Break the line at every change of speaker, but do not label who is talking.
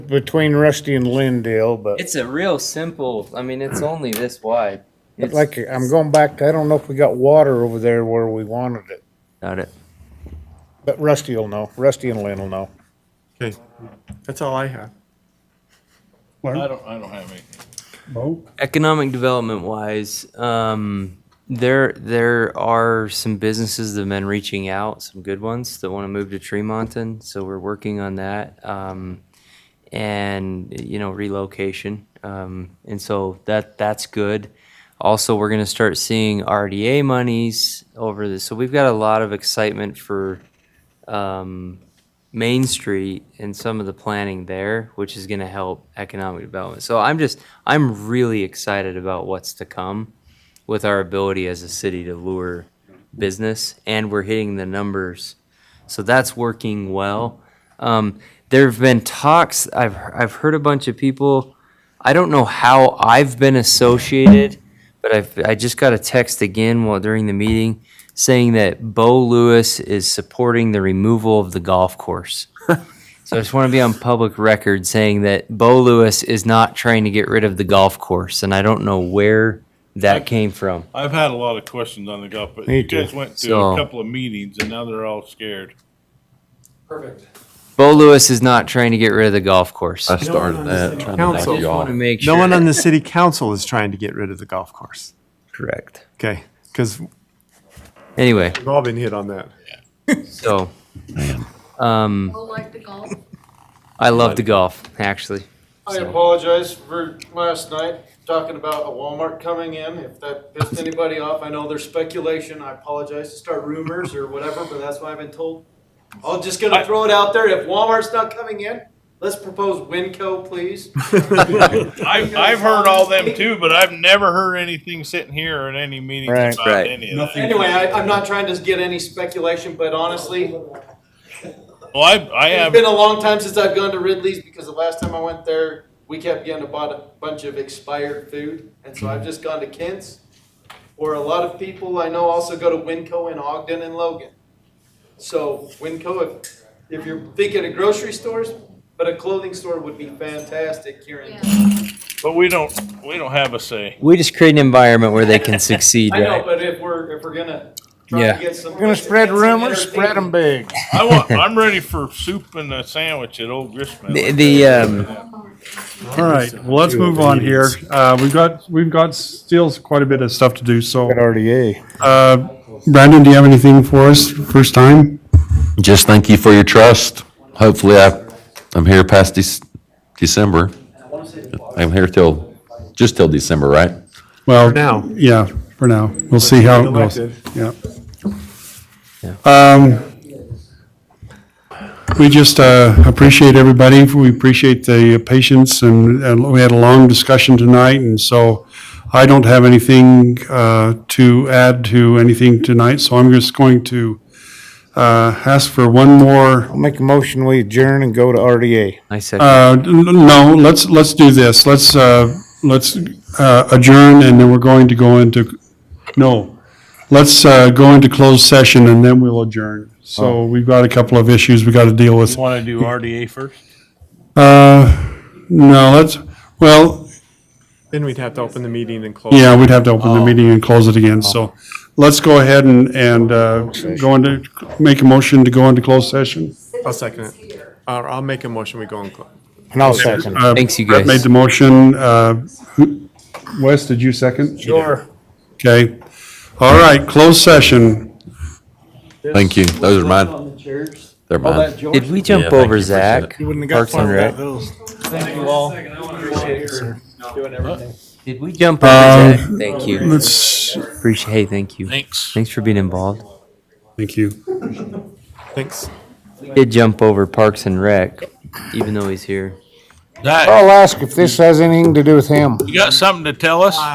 between Rusty and Lynn deal, but
It's a real simple, I mean, it's only this wide. It's-
like, I'm going back, I don't know if we got water over there where we wanted it.
Got it.
But Rusty will know, Rusty and Lynn will know.
Okay, that's all I have.
I don't, I don't have any.
Bo?
Economic development wise, um, there, there are some businesses that have been reaching out, some good ones that want to move to Tremonton. So we're working on that. Um, and, you know, relocation. Um, and so that, that's good. Also, we're going to start seeing RDA monies over this. So we've got a lot of excitement for, um, Main Street and some of the planning there, which is going to help economic development. So I'm just, I'm really excited about what's to come with our ability as a city to lure business, and we're hitting the numbers. So that's working well. Um, there have been talks, I've, I've heard a bunch of people, I don't know how I've been associated, but I've, I just got a text again while during the meeting saying that Bo Lewis is supporting the removal of the golf course. So I just want to be on public record saying that Bo Lewis is not trying to get rid of the golf course, and I don't know where that came from.
I've had a lot of questions on the golf, but
Me
you guys
too.
went to
So-
a couple of meetings and now they're all scared.
Bo Lewis is not trying to get rid of the golf course.
I started that, trying to knock
Council.
you
want
off.
to make sure.
No one on the city council is trying to get rid of the golf course.
correct.
Okay, because we've
Anyway,
all been hit on that.
so um,
Well, like the golf.
I love to golf actually.
I apologize for last night, talking about a Walmart coming in. If that pissed anybody off, I know there's speculation. I apologize to start rumors or whatever, but that's what I've been told. I'm just gonna throw it out there. If Walmart's not coming in, let's propose Winco, please.
I, I've heard all them too, but I've never heard anything sitting here or in any meetings
Right.
about
Right.
any of that.
Anyway, I, I'm not trying to get any speculation, but honestly,
Well, I, I
it's
have,
been a long time since I've gone to Ridley's because the last time I went there, we kept getting a bought a bunch of expired food, and so I've just gone to Kent's. Or a lot of people I know also go to Winco in Ogden and Logan. So Winco, if, if you're thinking of grocery stores, but a clothing store would be fantastic here in.
Yeah.
but we don't, we don't have a say.
We just create an environment where they can succeed,
I know,
right?
but if we're, if we're gonna try
Yeah.
to get some.
We're gonna spread rumors, spread them big.
I want, I'm ready for soup and a sandwich at Old Gristmill.
The, the um,
All right, well, let's move on here. Uh, we've got, we've got still quite a bit of stuff to do, so,
RDA.
uh, Brandon, do you have anything for us, first time?
Just thank you for your trust. Hopefully, I, I'm here past Dec- December. I'm here till, just till December, right?
Well,
For now.
Yeah, for now. We'll see how it goes.
Elected.
Yeah. Um, we just, uh, appreciate everybody. We appreciate the patience and, and we had a long discussion tonight. And so I don't have anything, uh, to add to anything tonight. So I'm just going to, uh, ask for one more
I'll make a motion, we adjourn and go to RDA.
I second.
Uh, n- No, let's, let's do this. Let's, uh, let's uh, adjourn, and then we're going to go into, no, let's uh, go into closed session, and then we'll adjourn. So we've got a couple of issues we got to deal with.
Want to do RDA first?
Uh, No, let's, well,
Then we'd have to open the meeting and close.
yeah, we'd have to open the meeting and close it again, so let's go ahead and, and uh, go into, make a motion to go into closed session.
I'll second it. Uh, I'll make a motion, we go and close.
And I'll second.
Uh,
Thanks, you guys.
Brett made the motion. uh, who- Wes, did you second?
Sure.
Okay. All right, closed session.
Thank you. Those are mine.
the chairs,
They're mine.
Did we
Yeah,
jump
thank
over
you for
Zach?
You wouldn't have
Parks and Rec?
thank you all. Appreciate your doing everything.
Did we jump over
Um,
Zach? Thank you.
Let's,
Appreciate. Hey, thank you.
Thanks.
Thanks for being involved.
thank you.
Thanks.
Did jump over Parks and Rec, even though he's here.
Zach,
I'll ask if this has anything to do with him.
you got something to tell us?